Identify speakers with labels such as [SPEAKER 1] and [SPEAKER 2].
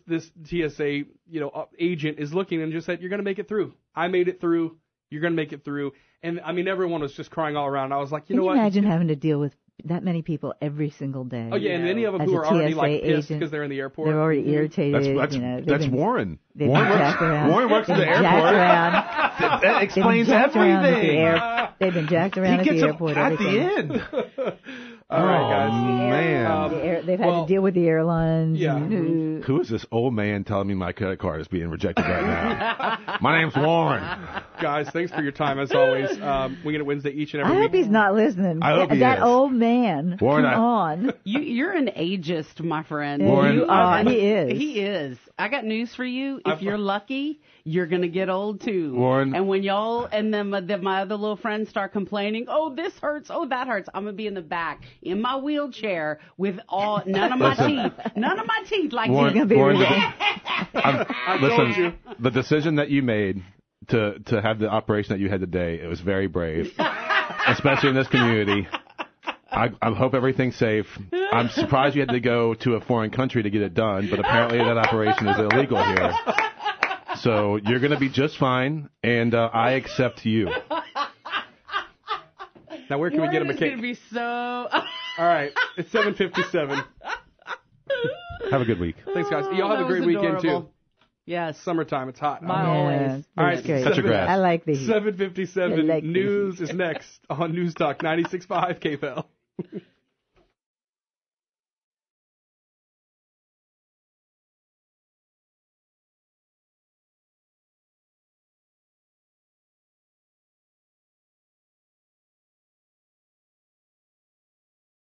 [SPEAKER 1] this TSA, you know, uh, agent is looking and just said, "You're going to make it through. I made it through. You're going to make it through." And I mean, everyone was just crying all around. I was like, "You
[SPEAKER 2] Can
[SPEAKER 1] know
[SPEAKER 2] you
[SPEAKER 1] what?"
[SPEAKER 2] imagine having to deal with that many people every single day?
[SPEAKER 1] Oh yeah, Mm-hmm. and many of them
[SPEAKER 2] As
[SPEAKER 1] who
[SPEAKER 2] a
[SPEAKER 1] are already
[SPEAKER 2] TSA
[SPEAKER 1] like pissed
[SPEAKER 2] agent,
[SPEAKER 1] because they're in the airport.
[SPEAKER 2] They're already irritated.
[SPEAKER 3] That's that's
[SPEAKER 2] you know, they've
[SPEAKER 3] that's
[SPEAKER 2] been-
[SPEAKER 3] Warren.
[SPEAKER 2] They've
[SPEAKER 3] Warren
[SPEAKER 2] been jacked
[SPEAKER 3] works,
[SPEAKER 2] around.
[SPEAKER 3] Warren works at the
[SPEAKER 2] They've been jacked
[SPEAKER 3] airport.
[SPEAKER 2] around.
[SPEAKER 3] That,
[SPEAKER 2] They've
[SPEAKER 3] that
[SPEAKER 2] been
[SPEAKER 3] explains
[SPEAKER 2] jacked around at the
[SPEAKER 3] everything.
[SPEAKER 2] air- They've been jacked around
[SPEAKER 3] he
[SPEAKER 2] at
[SPEAKER 3] gets
[SPEAKER 2] the
[SPEAKER 3] them
[SPEAKER 2] airport.
[SPEAKER 3] at
[SPEAKER 2] everything.
[SPEAKER 3] the end.
[SPEAKER 1] all right, guys.
[SPEAKER 3] Oh man,
[SPEAKER 2] The air- they've had
[SPEAKER 1] Well,
[SPEAKER 2] to deal with the airlines.
[SPEAKER 1] yeah. Mm-hmm.
[SPEAKER 2] and-
[SPEAKER 3] who is this old man telling me my credit card is being rejected right now? my name's Warren.
[SPEAKER 1] guys, thanks for your time as always. Um, we get it Wednesday each and
[SPEAKER 2] I
[SPEAKER 1] every
[SPEAKER 2] hope
[SPEAKER 1] week.
[SPEAKER 2] he's not listening.
[SPEAKER 3] I hope
[SPEAKER 2] that,
[SPEAKER 3] he
[SPEAKER 2] that
[SPEAKER 3] is.
[SPEAKER 2] old man.
[SPEAKER 3] Warren,
[SPEAKER 2] come
[SPEAKER 3] I-
[SPEAKER 2] on.
[SPEAKER 4] You, you're an ageist, my friend.
[SPEAKER 3] Warren,
[SPEAKER 4] you are.
[SPEAKER 2] uh, He is.
[SPEAKER 4] He is. I got news for you. If you're lucky, you're gonna get old too.
[SPEAKER 3] Warren.
[SPEAKER 4] And when y'all and then my, then my other little friends start complaining, oh this hurts, oh that hurts, I'm gonna be in the back in my wheelchair with all none of my
[SPEAKER 3] Listen.
[SPEAKER 4] teeth, none of my teeth like
[SPEAKER 3] Warren,
[SPEAKER 4] you.
[SPEAKER 2] gonna be
[SPEAKER 3] Warren,
[SPEAKER 2] really-
[SPEAKER 3] the- I'm- listen, the decision that you made to to have the operation that you had today, it was very brave, especially in this community. I, I hope everything's safe. I'm surprised you had to go to a foreign country to get it done, but apparently that operation is illegal here. So you're going to be just fine, and uh, I accept you.
[SPEAKER 1] now where can we get him
[SPEAKER 4] Warren
[SPEAKER 1] a
[SPEAKER 4] is
[SPEAKER 1] cake?
[SPEAKER 4] gonna be so.
[SPEAKER 1] All right, it's 7:57.
[SPEAKER 3] Have a good week.
[SPEAKER 1] Thanks, guys.
[SPEAKER 2] Oh,
[SPEAKER 1] Y'all have
[SPEAKER 4] That
[SPEAKER 1] a great
[SPEAKER 4] was
[SPEAKER 1] weekend too.
[SPEAKER 4] adorable. yes.
[SPEAKER 1] Summertime, it's hot.
[SPEAKER 4] Bye. Always.
[SPEAKER 2] Yeah,
[SPEAKER 1] All
[SPEAKER 2] that's
[SPEAKER 1] right,
[SPEAKER 2] great.
[SPEAKER 3] Cut your grass.
[SPEAKER 2] I like the heat.
[SPEAKER 1] 7:57.
[SPEAKER 2] I like
[SPEAKER 1] News is next on News Talk 96.5 KFL.